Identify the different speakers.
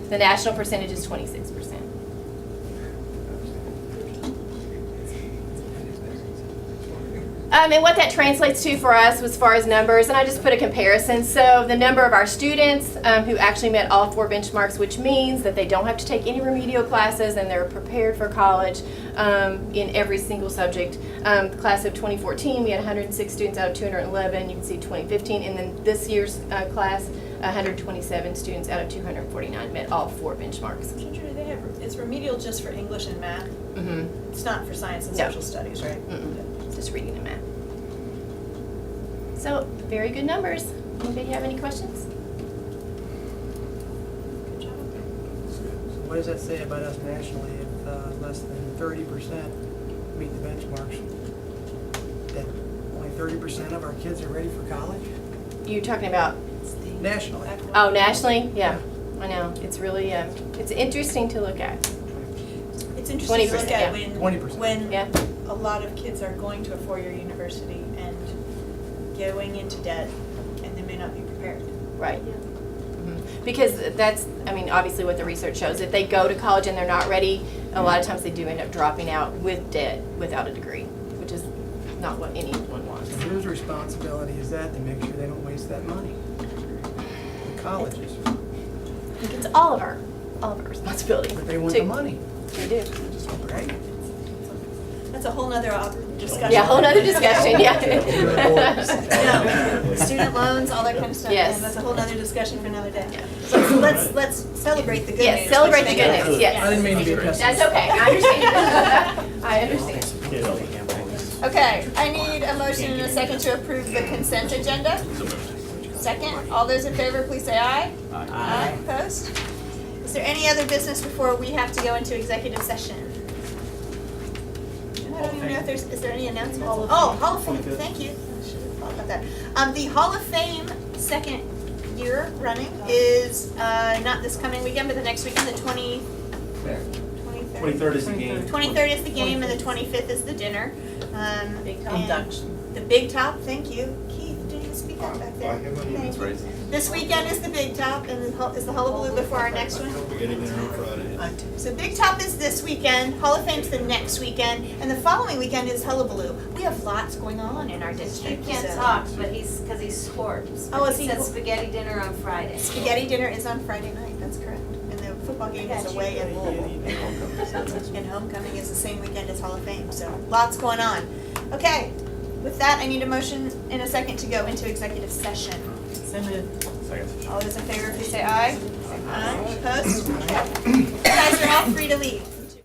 Speaker 1: The national percentage is twenty-six percent. Um, and what that translates to for us as far as numbers, and I just put a comparison. So the number of our students um, who actually met all four benchmarks, which means that they don't have to take any remedial classes and they're prepared for college um, in every single subject. Um, the class of 2014, we had 106 students out of 211. You can see 2015, and then this year's uh, class, 127 students out of 249 met all four benchmarks.
Speaker 2: Teacher, they have, it's remedial just for English and math?
Speaker 1: hmm
Speaker 2: It's not for science and
Speaker 1: No.
Speaker 2: social studies, right?
Speaker 1: Mm-mm, just reading and math. So, very good numbers. Anybody have any questions?
Speaker 2: Good job.
Speaker 3: What does that say about us nationally if uh, less than thirty percent meet the benchmarks? That only thirty percent of our kids are ready for college
Speaker 1: You talking about,
Speaker 3: nationally?
Speaker 1: oh, nationally? Yeah, I know. It's really, um, it's interesting to look at.
Speaker 2: It's interesting to
Speaker 1: 20%,
Speaker 2: look
Speaker 1: yeah.
Speaker 2: at when.
Speaker 3: 20%.
Speaker 1: Yeah.
Speaker 2: When a lot of kids are going to a four-year university and going into debt and they may not be prepared.
Speaker 1: Right. Mhm. Because that's, I mean, obviously what the research shows, if they go to college and they're not ready, a lot of times they do end up dropping out with debt without a degree, which is not what anyone wants.
Speaker 3: Whose responsibility is that to make sure they don't waste that money? The colleges,
Speaker 1: I think it's all of our, all of our responsibility.
Speaker 3: but they want
Speaker 1: to-
Speaker 3: the money,
Speaker 1: They do.
Speaker 3: right?
Speaker 2: That's a whole nother op- discussion.
Speaker 1: Yeah, whole nother discussion,
Speaker 4: Yeah.
Speaker 2: No, student loans, all that kind of stuff.
Speaker 1: Yes.
Speaker 2: That's a whole nother discussion for another day.
Speaker 1: Yeah.
Speaker 2: Let's, let's, let's celebrate the good news.
Speaker 1: Yes, celebrate the
Speaker 2: which
Speaker 1: good
Speaker 2: they-
Speaker 1: news, yes.
Speaker 3: I didn't mean to be a pessimist.
Speaker 1: That's okay, I understand. I understand.
Speaker 5: Okay, I need a motion and a second to approve the consent agenda. Second, all those in favor, please say aye. Aye. Opposed?
Speaker 2: Is there any other business before we have to go into executive session? And I don't even know if there's, is there any announcements? Oh, Hall of Fame, thank you. I should have thought about that. Um, the Hall of Fame, second year running, is, uh, not this coming weekend, but the next weekend, the twenty, twenty-third?
Speaker 4: Twenty-third is the game.
Speaker 2: Twenty-third is the game, and the twenty-fifth is the dinner. Um,
Speaker 6: Big
Speaker 2: and
Speaker 6: induction.
Speaker 2: The Big Top, thank you. Keith, didn't you speak up back there? Thank you. This weekend is the Big Top, and the hul- is the hullabaloo before our next one?
Speaker 4: We're getting there on Friday.
Speaker 2: So Big Top is this weekend, Hall of Fame's the next weekend, and the following weekend is Hullabaloo. We have lots going on in our
Speaker 6: He
Speaker 2: district.
Speaker 6: can't
Speaker 2: so-
Speaker 6: talk, but he's, because he's scorched.
Speaker 2: Oh, is he-
Speaker 6: He said spaghetti dinner on Friday.
Speaker 2: Spaghetti dinner is on Friday night, that's correct. And the football game is away in Louisville. And homecoming is the same weekend as Hall of Fame, so lots going on. Okay, with that, I need a motion in a second to go into executive session.
Speaker 4: Second.
Speaker 2: All those in favor, please say aye. Aye. Opposed? You guys are all free to leave.